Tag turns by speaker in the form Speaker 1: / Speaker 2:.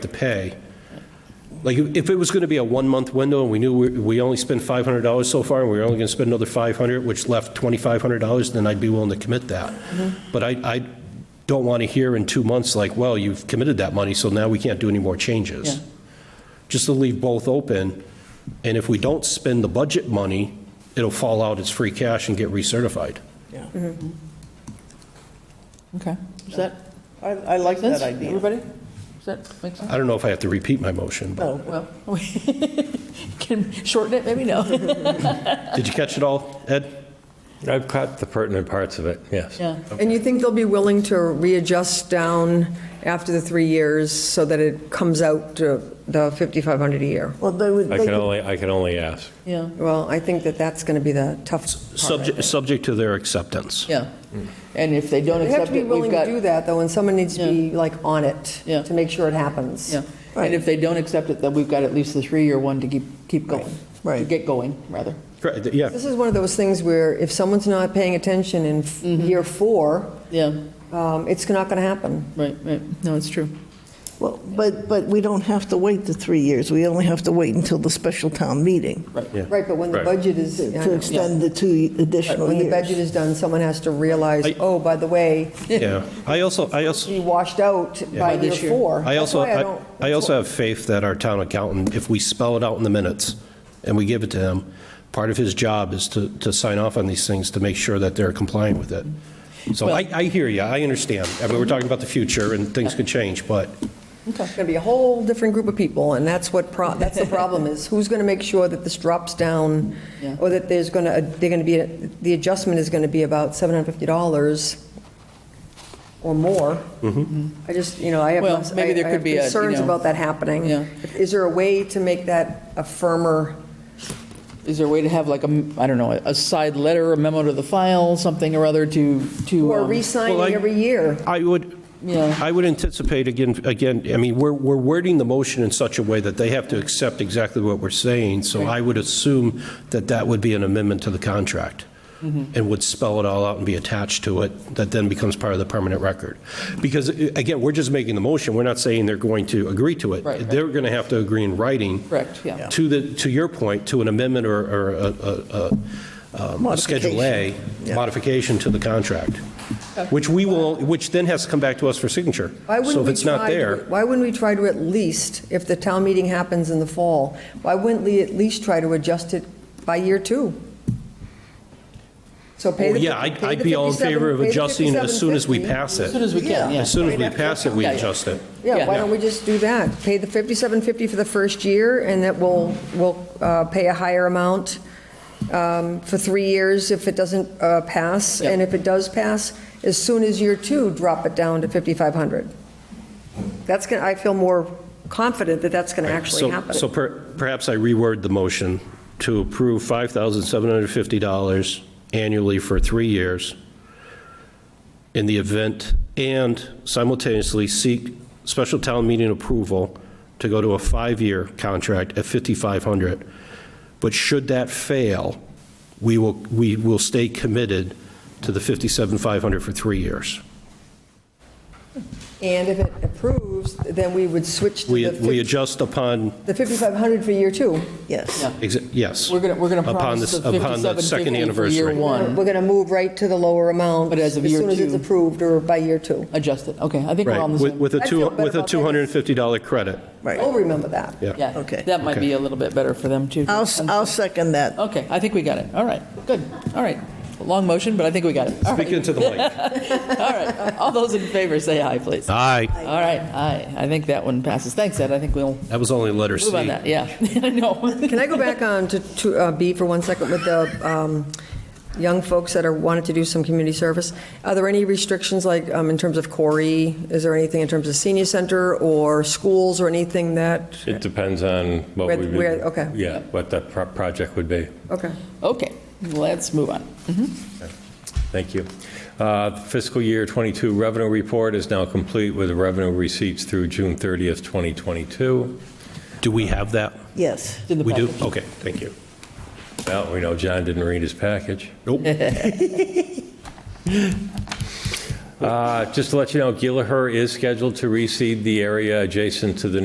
Speaker 1: to pay. Like, if it was going to be a one-month window, and we knew we- we only spent $500 so far, and we were only going to spend another 500, which left $2,500, then I'd be willing to commit that.
Speaker 2: Mm-hmm.
Speaker 1: But I, I don't want to hear in two months, like, well, you've committed that money, so now we can't do any more
Speaker 2: Yeah.
Speaker 1: changes. Just to leave both open, and if we don't spend the budget money, it'll fall out as free cash and get recertified.
Speaker 2: Okay. Is that
Speaker 3: I, I like
Speaker 2: sense?
Speaker 3: that idea.
Speaker 2: Everybody? Does that make sense?
Speaker 1: I don't know if I have to repeat my motion, but
Speaker 2: Oh, well, we can shorten it, maybe no.
Speaker 1: did you catch it all, Ed?
Speaker 4: I've caught the pertinent parts of it, yes.
Speaker 2: Yeah.
Speaker 5: And you think they'll be willing to readjust down after the three years so that it comes out to the 5,500 a year?
Speaker 3: Well, they would,
Speaker 4: I
Speaker 3: they
Speaker 4: can
Speaker 3: could-
Speaker 4: only, I can only ask.
Speaker 2: Yeah,
Speaker 5: Well, I think that that's going to be the tough part.
Speaker 1: Subject, subject to their acceptance.
Speaker 2: yeah.
Speaker 1: Hmm.
Speaker 2: And if they don't
Speaker 5: They have
Speaker 2: accept
Speaker 5: to be
Speaker 2: it,
Speaker 5: willing
Speaker 2: we've
Speaker 5: to
Speaker 2: got,
Speaker 5: do that, though, and someone needs to be like on it
Speaker 2: Yeah.
Speaker 5: to make sure it happens.
Speaker 2: yeah.
Speaker 5: Right.
Speaker 2: And if they don't accept it, then we've got at least the three-year one to keep, keep going. To
Speaker 5: Right.
Speaker 2: get going, rather.
Speaker 1: Correct, Yeah,
Speaker 5: This is one of those things where if someone's not paying attention in f- year four,
Speaker 2: Yeah,
Speaker 5: um, it's not going to happen.
Speaker 2: right, right. No, it's true.
Speaker 3: well, but, but we don't have to wait the three years. We only have to wait until the special town meeting
Speaker 1: Yeah.
Speaker 5: Right, but when the
Speaker 4: Right.
Speaker 5: budget is, I
Speaker 3: to
Speaker 5: know.
Speaker 3: extend the two additional
Speaker 5: when the budget
Speaker 3: years.
Speaker 5: is done, someone has to realize,
Speaker 1: I-
Speaker 5: oh, by the way,
Speaker 1: yeah. I also, I also,
Speaker 5: be washed out by
Speaker 2: By
Speaker 5: year
Speaker 2: this year.
Speaker 5: four.
Speaker 1: I
Speaker 5: That's
Speaker 1: also,
Speaker 5: why I
Speaker 1: I
Speaker 5: don't-
Speaker 1: I also have faith that our town accountant, if we spell it out in the minutes and we give it to him, part of his job is to, to sign off on these things to make sure that they're compliant with it. So I, I hear you, I understand. I mean, we're talking about the future and things could change, but
Speaker 5: It's going to be a whole different group of people, and that's what, pro- that's the problem, is who's going to make sure that this drops down,
Speaker 2: Yeah.
Speaker 5: or that there's going to, they're going to be, the adjustment is going to be about $750 or more.
Speaker 1: Mm-hmm.
Speaker 5: I just, you know, I have,
Speaker 2: Mm-hmm. Well,
Speaker 5: I
Speaker 2: maybe there
Speaker 5: I
Speaker 2: could
Speaker 5: have
Speaker 2: be a, you
Speaker 5: concerns
Speaker 2: know-
Speaker 5: about that happening.
Speaker 2: Yeah.
Speaker 5: Is there a way to make that a firmer,
Speaker 2: Is there a way to have like a, m- I don't know, a side letter, a memo to the file, something or other to, to,
Speaker 5: or
Speaker 2: um,
Speaker 1: Well, I-
Speaker 5: re-signing every year?
Speaker 1: I would,
Speaker 2: Yeah.
Speaker 1: I would anticipate, again, again, I mean, we're, we're wording the motion in such a way that they have to accept exactly what we're saying, so I would assume that that would be an amendment to the contract,
Speaker 2: Mm-hmm.
Speaker 1: and would spell it all out and be attached to it, that then becomes part of the permanent record. Because, uh, again, we're just making the motion, we're not saying they're going to agree to it.
Speaker 2: Right, right.
Speaker 1: They're going to have to agree in writing.
Speaker 2: Correct, yeah.
Speaker 1: To the, to your point, to an amendment or, or a- a, a um, Schedule A
Speaker 3: Yeah.
Speaker 1: modification to the contract, which we will, which then has to come back to us for signature.
Speaker 5: Why wouldn't
Speaker 1: So if
Speaker 5: we
Speaker 1: it's not
Speaker 5: try to-
Speaker 1: there,
Speaker 5: Why wouldn't we try to at least, if the town meeting happens in the fall, why wouldn't we at least try to adjust it by year two? So pay
Speaker 1: oh,
Speaker 5: the.
Speaker 1: yeah,
Speaker 5: fif-
Speaker 1: I'd
Speaker 5: pay
Speaker 1: I'd
Speaker 5: the
Speaker 1: be all in
Speaker 5: 57
Speaker 1: favor of
Speaker 5: pay the
Speaker 1: adjusting as soon as we
Speaker 5: 57.50.
Speaker 1: pass
Speaker 2: As soon as
Speaker 1: it.
Speaker 2: we can, yeah.
Speaker 1: As soon as we pass it, we
Speaker 2: Yeah, yeah.
Speaker 1: adjust it.
Speaker 5: Yeah, why
Speaker 2: Yeah.
Speaker 5: don't we just do that? Pay the 5750 for the first year, and that will, will uh, pay a higher amount um, for three years if it doesn't uh, pass.
Speaker 2: Yeah.
Speaker 5: And if it does pass, as soon as year two, drop it down to 5,500. That's going, to I feel more confident that that's going to
Speaker 1: So-
Speaker 5: actually happen.
Speaker 1: So per- perhaps I reword the motion to approve $5,750 annually for three years in the event, and simultaneously seek special town meeting approval to go to a five-year contract at 5,500. But should that fail, we will, we will stay committed to the 57,500 for three years.
Speaker 5: And if it approves, then we would switch to
Speaker 1: We,
Speaker 5: the
Speaker 1: we
Speaker 5: fif-
Speaker 1: adjust upon,
Speaker 5: the 5,500 for year two.
Speaker 3: Yes.
Speaker 2: Yeah.
Speaker 1: exa- yes.
Speaker 2: We're going to, we're going to
Speaker 1: Upon
Speaker 2: promise
Speaker 1: this-
Speaker 2: the
Speaker 1: upon the second
Speaker 2: 57.50 for year
Speaker 1: anniversary.
Speaker 5: We're
Speaker 2: one.
Speaker 5: going to move right to the lower amount.
Speaker 2: But as of year
Speaker 5: soon as it's
Speaker 2: two-
Speaker 5: approved or by year two.
Speaker 2: Adjust it, okay, I think we're
Speaker 1: Right,
Speaker 2: on the
Speaker 1: with
Speaker 2: same.
Speaker 1: with a
Speaker 5: I
Speaker 1: two,
Speaker 5: feel better
Speaker 1: with a
Speaker 5: about that.
Speaker 1: $250 credit.
Speaker 5: We'll
Speaker 3: Right.
Speaker 5: remember that.
Speaker 2: Yeah,
Speaker 3: Okay.
Speaker 2: that might be a little bit better for them, too.
Speaker 3: I'll, s- I'll second that.
Speaker 2: Okay, I think we got it, all right, good, all right. Long motion, but I think we got it. All right,
Speaker 1: Speak into the mic.
Speaker 2: all right, all those in favor, say aye, please. All
Speaker 1: Aye.
Speaker 2: right, aye, I think that one passes, thanks, Ed, I think we'll
Speaker 1: That was only letter C.
Speaker 2: move on that, yeah, I know.
Speaker 5: Can I go back on to- to uh, B for one second with the um, young folks that are, wanted to do some community service? Are there any restrictions, like, um, in terms of Corey? Is there anything in terms of senior center or schools or anything that,
Speaker 4: It depends on what
Speaker 5: Where-
Speaker 4: we. would-
Speaker 5: where- okay.
Speaker 4: Yeah, what the pro- project would be.
Speaker 5: okay.
Speaker 2: Okay, let's move on.
Speaker 4: Thank you. Uh, Fiscal year '22 revenue report is now complete with revenue receipts through June 30th, 2022.
Speaker 1: Do we have that?
Speaker 3: Yes.
Speaker 2: It's in the
Speaker 1: We do?
Speaker 2: package.
Speaker 1: Okay, thank you.
Speaker 4: Well, we know John didn't read his package.
Speaker 1: Nope.
Speaker 4: Uh, Just to let you know, Gilliher is scheduled to reseed the area adjacent to the